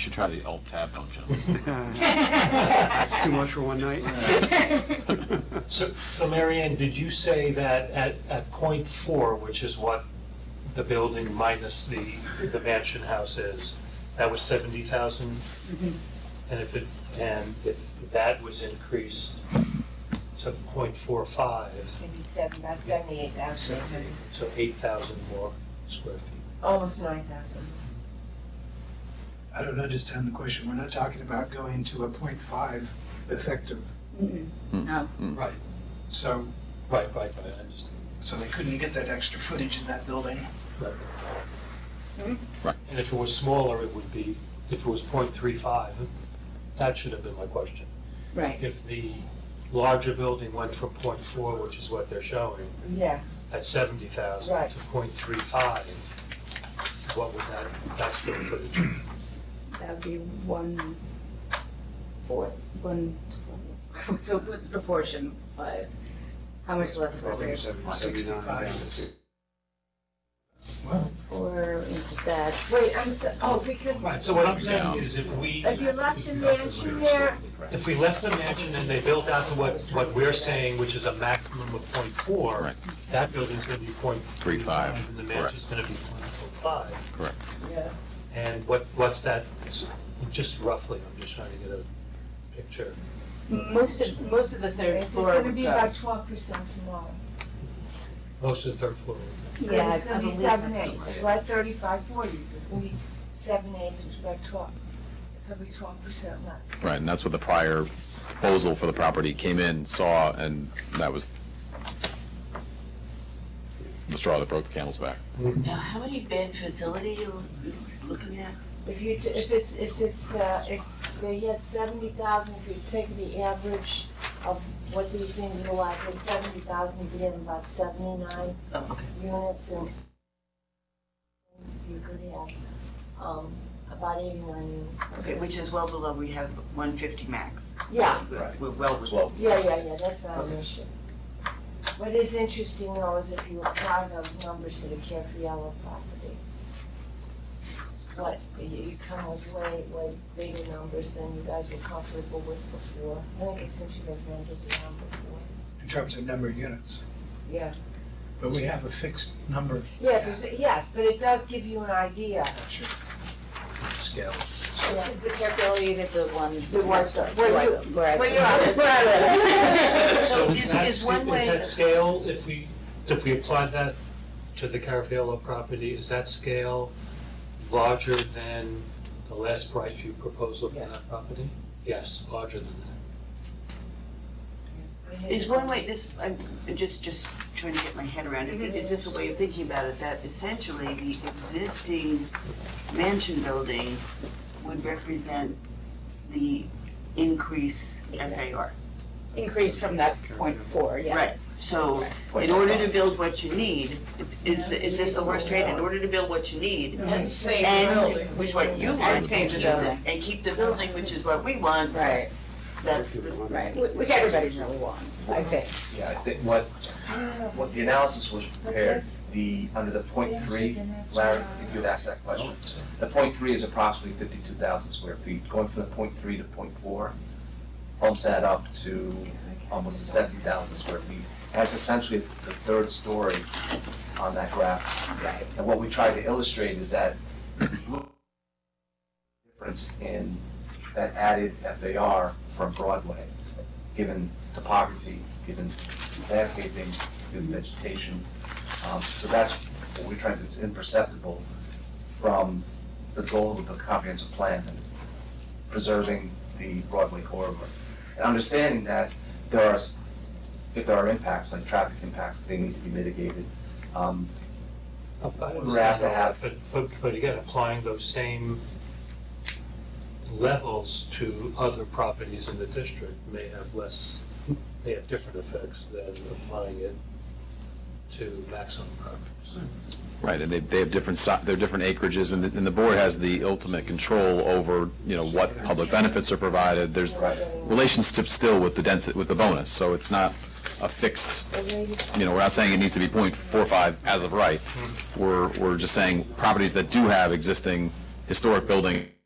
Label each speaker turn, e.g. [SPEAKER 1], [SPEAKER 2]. [SPEAKER 1] should try the alt tab function.
[SPEAKER 2] That's Uh, too much for one night.
[SPEAKER 3] So, so Mary Ann, did you say that at, at point four, which is what the building minus the, the mansion house is, that was seventy thousand? And if it, and if that was increased to point four five,
[SPEAKER 4] Maybe seven, about seventy-eight thousand,
[SPEAKER 3] so eight thousand more square feet.
[SPEAKER 4] almost nine thousand.
[SPEAKER 5] I don't understand the question. We're not talking about going to a point five effective,
[SPEAKER 6] No,
[SPEAKER 3] Right,
[SPEAKER 5] so,
[SPEAKER 3] right, right, right, I understand.
[SPEAKER 5] so they couldn't get that extra footage in that building.
[SPEAKER 3] Right.
[SPEAKER 1] Right.
[SPEAKER 3] And if it was smaller, it would be, if it was point three five, that should have been my question.
[SPEAKER 6] right.
[SPEAKER 3] If the larger building went from point four, which is what they're showing,
[SPEAKER 4] Yeah,
[SPEAKER 3] at seventy thousand
[SPEAKER 4] Right.
[SPEAKER 3] to point three five, what would that, that's the footage?
[SPEAKER 6] That would be one fourth, one, so what's proportion wise? How much less would there?
[SPEAKER 5] Well,
[SPEAKER 6] Or into that,
[SPEAKER 4] wait, I'm so, oh, because
[SPEAKER 3] Right, so what I'm saying is if we,
[SPEAKER 4] if you left the mansion there,
[SPEAKER 3] if we left the mansion and they built out to what, what we're saying, which is a maximum of point four,
[SPEAKER 1] Right.
[SPEAKER 3] that building's gonna be point
[SPEAKER 1] Three
[SPEAKER 3] three five,
[SPEAKER 1] five,
[SPEAKER 3] and the
[SPEAKER 1] correct,
[SPEAKER 3] mansion's gonna be point four five.
[SPEAKER 1] correct.
[SPEAKER 4] yeah,
[SPEAKER 3] And what, what's that, just roughly, I'm just trying to get a picture.
[SPEAKER 6] most of, most of the third
[SPEAKER 4] it's just
[SPEAKER 6] floor
[SPEAKER 4] gonna
[SPEAKER 6] would
[SPEAKER 4] be
[SPEAKER 6] go.
[SPEAKER 4] about twelve percent smaller.
[SPEAKER 3] Most of the third floor.
[SPEAKER 6] Yeah,
[SPEAKER 4] It's gonna
[SPEAKER 6] I
[SPEAKER 4] be
[SPEAKER 6] believe
[SPEAKER 4] seven
[SPEAKER 6] that's
[SPEAKER 4] eighths,
[SPEAKER 6] right.
[SPEAKER 4] it's like thirty-five forties, it's gonna be seven eighths, which is about twelve, so it'll be twelve percent less.
[SPEAKER 1] Right, and that's what the prior proposal for the property came in, saw, and that was the straw that broke the camel's back.
[SPEAKER 7] Now, how many bed facility you looking at?
[SPEAKER 4] If you, t- if it's, if it's, uh, if they had seventy thousand, if you take the average of what these things are like, at seventy thousand, you have about seventy-nine
[SPEAKER 7] Oh,
[SPEAKER 4] units and you could have, um, about eighty-nine units.
[SPEAKER 7] Okay, which is well below, we have 150 max.
[SPEAKER 4] Yeah,
[SPEAKER 7] We're we're well below.
[SPEAKER 4] yeah, yeah, yeah, that's not an issue. What is interesting though is if you apply those numbers to the Capriello property, what, you- you come with way, way bigger numbers than you guys were comfortable with before. I think it's since you guys numbers around before.
[SPEAKER 5] in terms of number of units,
[SPEAKER 4] Yeah.
[SPEAKER 5] but we have a fixed number.
[SPEAKER 4] Yeah, there's, yeah, but it does give you an idea.
[SPEAKER 5] Sure.
[SPEAKER 3] Scale.
[SPEAKER 4] Yeah.
[SPEAKER 6] Is the capability unit the one?
[SPEAKER 4] The one star.
[SPEAKER 6] Where I
[SPEAKER 4] Where
[SPEAKER 6] live. Where I
[SPEAKER 4] Where you
[SPEAKER 6] live.
[SPEAKER 4] are.
[SPEAKER 6] Where I live.
[SPEAKER 7] So
[SPEAKER 3] Is
[SPEAKER 7] is-
[SPEAKER 3] that
[SPEAKER 7] is
[SPEAKER 3] sc-
[SPEAKER 7] one
[SPEAKER 3] Is
[SPEAKER 7] way-
[SPEAKER 3] that scale, if we, if we applied that to the Caraviallo property, is that scale larger than the last price you proposed for
[SPEAKER 4] Yes.
[SPEAKER 3] that property? Yes, larger than that.
[SPEAKER 7] Is one way, this, I'm just, just trying to get my head around it. Is this a way of thinking about it, that essentially the existing mansion building would represent the increase FAR?
[SPEAKER 6] Increase from that point four,
[SPEAKER 7] Right,
[SPEAKER 6] yes.
[SPEAKER 7] so in order to build what you need, is, is this the worst trade? In order to build what you need,
[SPEAKER 4] And save
[SPEAKER 7] and, which is what you want,
[SPEAKER 6] And save the
[SPEAKER 7] keep
[SPEAKER 6] building.
[SPEAKER 7] And keep the building, which is what we want,
[SPEAKER 6] Right,
[SPEAKER 7] that's the
[SPEAKER 6] right, Wh- which everybody really wants, I think.
[SPEAKER 8] Yeah, I think what, what the analysis was prepared, the, under the point three, Larry, if you'd ask that question. The point three is approximately fifty-two thousand square feet, going from the point three to point four, bumps that up to almost seventy thousand square feet. That's essentially the third story on that graph. And what we tried to illustrate is that difference in that added FAR from Broadway, given topography, given landscaping, given vegetation. Um, So that's what we're trying to, it's imperceptible from the goal of the comprehensive plan, and preserving the Broadway corridor. And understanding that there are, s- if there are impacts, like traffic impacts, they need to be mitigated. Um, We're asked to have-
[SPEAKER 3] But, but, but again, applying those same levels to other properties in the district may have less, may have different effects than applying it to maximum properties.
[SPEAKER 1] Right, and they, they have different, si- they're different acreages, and the, and the board has the ultimate control over, you know, what public benefits are provided. There's relationships still with the density, with the bonus, so it's not a fixed you know, we're not saying it needs to be .45 as of right. We're, we're just saying properties that do have existing historic building